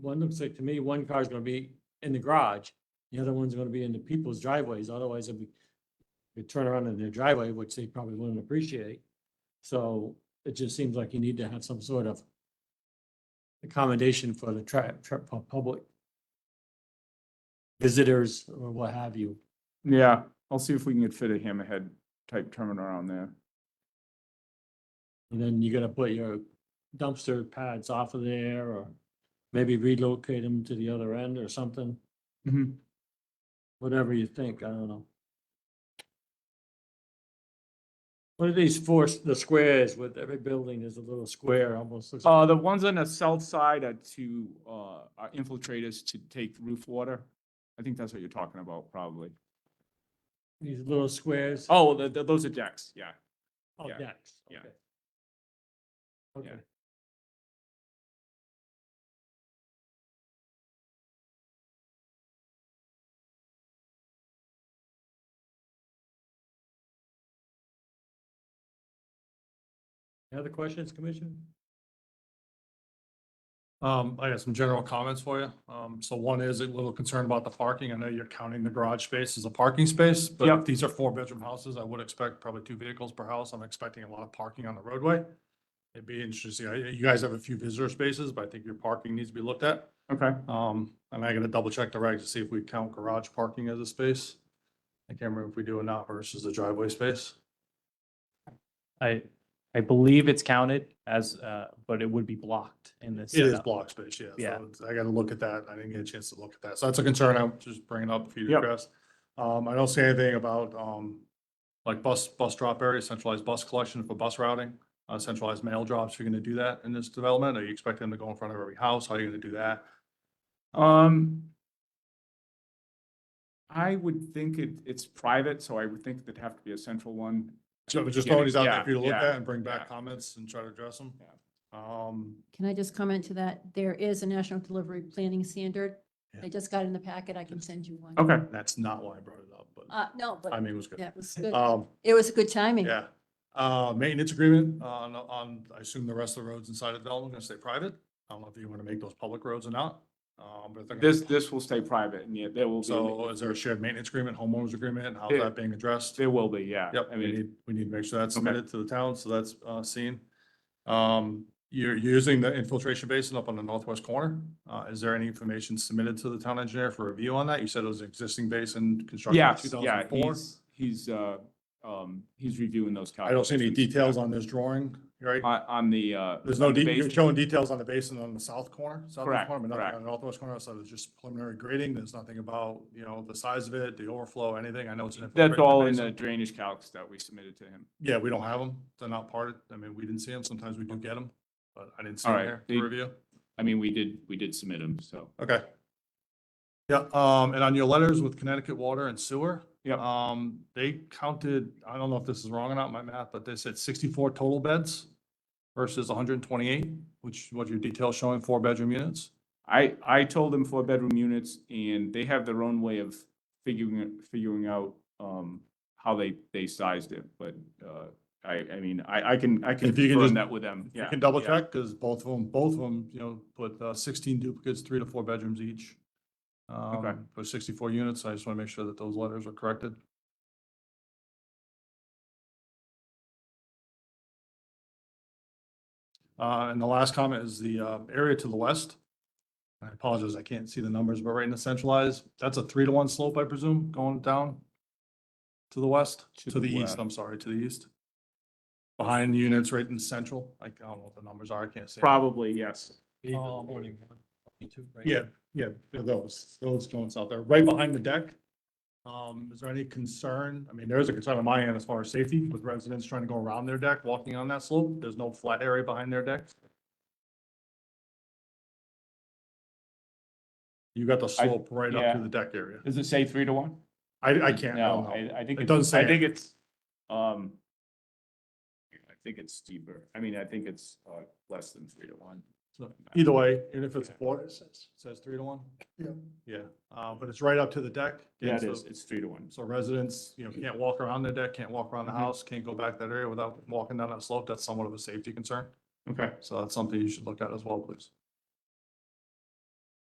one looks like to me, one car is gonna be in the garage, the other one's gonna be in the people's driveways, otherwise it'd be you turn around in their driveway, which they probably wouldn't appreciate. So it just seems like you need to have some sort of accommodation for the tra- tra- pu- public visitors or what have you. Yeah, I'll see if we can get fit a hammerhead type terminal on there. And then you gotta put your dumpster pads off of there or maybe relocate them to the other end or something, Mm-hmm. Mhm. whatever you think, I don't know. One of these four, s- the squares with every building is a little square, almost looks, Uh, the ones on the south side are to, uh, are infiltrators to take roof water. I think that's what you're talking about, probably. these little squares. Oh, the, the, those are decks, yeah. Oh, yeah, decks, yeah. okay. Yeah. Okay. Any Other questions, Commissioner? Um, I got some general comments for you. Um, so one is a little concerned about the parking. I know you're counting the garage space as a parking space, but Yep. if these are four bedroom houses, I would expect probably two vehicles per house. I'm expecting a lot of parking on the roadway. It'd be interesting. I- You guys have a few visitor spaces, but I think your parking needs to be looked at. Okay, Um, and I gotta double check the regs to see if we count garage parking as a space. I can't remember if we do or not versus the driveway space. I, I believe it's counted as, uh, but it would be blocked in this. It is setup. block space, yeah. so Yeah. it's- I gotta look at that. I didn't get a chance to look at that. So that's a concern I'm just bringing up for you to Yep. address. Um, I don't see anything about, um, like bus, bus drop area, centralized bus collection for bus routing, uh, centralized mail drops. You're gonna do that in this development? Are you expecting them to go in front of every house? How are you gonna do that? um. I would think it, it's private, so I would think there'd have to be a central one. So just throwing these out there Yeah, for you to look yeah, at and bring yeah. back comments and try to address them. Yeah. Um, Can I just comment to that? There is a national delivery planning standard. I just got it in the packet. I can send you one. Okay, that's not why I brought it up, but Uh, no, I but mean, it was good. that was good. Um, It was good timing. Yeah, uh, maintenance agreement on, on, I assume the rest of the roads inside of Dalton are gonna stay private. I don't know if you want to make those public roads or not. Um, but if they're gonna- this, this will stay private, and yeah, there will So be, is there a shared maintenance agreement, homeowners agreement, and how's Yeah. that being addressed? there will be, yeah. Yep, I we mean, need, we need to make sure that's Okay. submitted to the town, so that's, uh, seen. Um, you're using the infiltration basin up on the northwest corner. Uh, is there any information submitted to the town engineer for review on that? You said it was an existing basin constructed in two yes, yeah, thousand four. he's, he's, uh, um, he's reviewing those. I don't see any calculations. details on this drawing, right? On, on the, uh. There's no, on the de- you're base- showing details on the basin on the south corner, southwest Correct, corner, but correct. nothing on the northwest corner, so there's just preliminary grading, there's nothing about, you know, the size of it, the overflow, anything, I know it's. an That's infiltrated all in basin. the drainage calcs that we submitted to him. Yeah, we don't have them, they're not parted, I mean, we didn't see them, sometimes we do get them, but I didn't see All them right, here the- to review. I mean, we did, we did submit them, so. Okay. Yeah, um, and on your letters with Connecticut Water and Sewer. Yep. Um, they counted, I don't know if this is wrong or not, my math, but they said sixty-four total beds versus hundred and twenty-eight, which, what your detail's showing, four bedroom units. I, I told them four bedroom units and they have their own way of figuring, it- figuring out, um, how they, they sized it, but, uh, I, I mean, I, I can, I can If you can confirm just- that with them. You Yeah, can double yeah. check, because both of them, both of them, you know, put uh, sixteen duplicates, three to four bedrooms each. um, For sixty-four units, I just want to make sure that those letters are corrected. Uh, and the last comment is the uh, area to the west. I apologize, I can't see the numbers, but right in the centralized, that's a three to one slope, I presume, going down to the west, To to the the east, west. I'm sorry, to the east. Behind units right in central, like, I don't know what the numbers are, I can't say. Probably, yes. Even forty-one, forty-two, right? Yeah, yeah, they're those, those joints out there, right behind the deck. Um, is there any concern? I mean, there is a concern on my end as far as safety with residents trying to go around their deck, walking on that slope. There's no flat area behind their deck. You got the slope right up yeah. to the deck area. Does it say three to one? I, I can't, I don't No, know. I, I think. It it's- doesn't say I think it. it's, um, I think it's steeper. I mean, I think it's, uh, less than three to one. So Either way, even if it's four, it says three to one. Yeah. Yeah, uh, but it's right up to the deck. Yeah, it so- is. It's three to one. So residents, you know, can't walk around their deck, can't walk around the house, can't go back that area without walking down that slope. That's somewhat of a safety concern. Okay. So that's something you should look at as well, please.